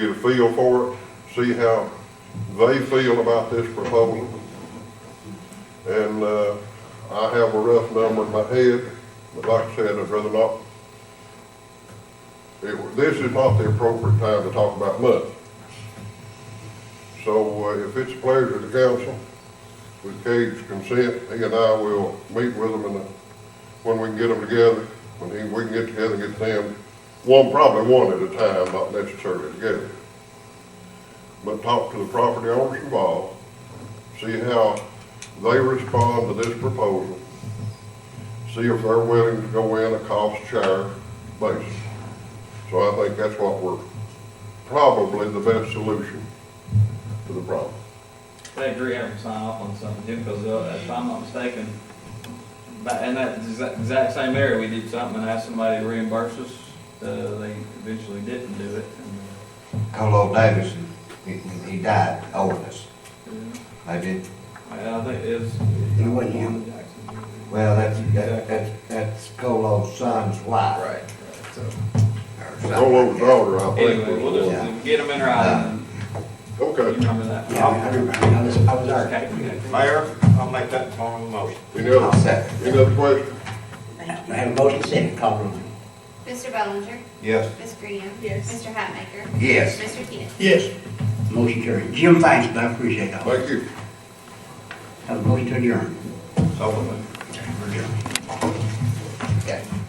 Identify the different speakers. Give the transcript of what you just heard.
Speaker 1: get a feel for it, see how they feel about this proposal. And, uh, I have a rough number in my head, but like I said, I'd rather not. It- This is not the appropriate time to talk about money. So uh, if it's a pleasure to council, with Cade's consent, he and I will meet with them in the, when we can get them together, when he, we can get together and get them, one, probably one at a time, not necessarily together. But talk to the property owners involved, see how they respond to this proposal, see if they're willing to go in a cost share basis. So I think that's what we're, probably the best solution to the problem.
Speaker 2: They agree having to sign off on something too, because uh, if I'm not mistaken, ba- in that exa- exact same area, we did something and asked somebody to reimburse us. Uh, they eventually didn't do it. and,
Speaker 3: Colo Davis, he, he died, owed us.
Speaker 2: uh,
Speaker 3: They did,
Speaker 2: yeah, I think it's.
Speaker 3: It wasn't him. well, that's, that- that's, that's Colo's son's wife.
Speaker 2: Right, right, so,
Speaker 3: or something
Speaker 1: Roll over
Speaker 3: like that.
Speaker 1: daughter, I think.
Speaker 2: anyway,
Speaker 1: was-
Speaker 2: we'll just get them in writing, you
Speaker 1: Okay,
Speaker 2: remember that.
Speaker 3: Uh, Yeah, I remember, I was, I was there.
Speaker 2: Okay, okay.
Speaker 4: Mayor, I'll make that formal motion.
Speaker 1: any
Speaker 3: I'll
Speaker 1: other,
Speaker 3: second.
Speaker 1: any other questions?
Speaker 5: Thank
Speaker 3: We
Speaker 5: you.
Speaker 3: have a motion second, call the roll.
Speaker 6: Mr. Bellinger?
Speaker 4: Yes.
Speaker 6: Ms. Graham?
Speaker 5: Yes.
Speaker 6: Mr. Hatmaker?
Speaker 3: Yes.
Speaker 6: Mr. Keenan?
Speaker 3: Yes. Motion carried. Jim, thanks, but I appreciate all.
Speaker 1: Thank you.
Speaker 3: Have a motion to adjourn.
Speaker 4: So moved.
Speaker 3: We're adjourned. Okay.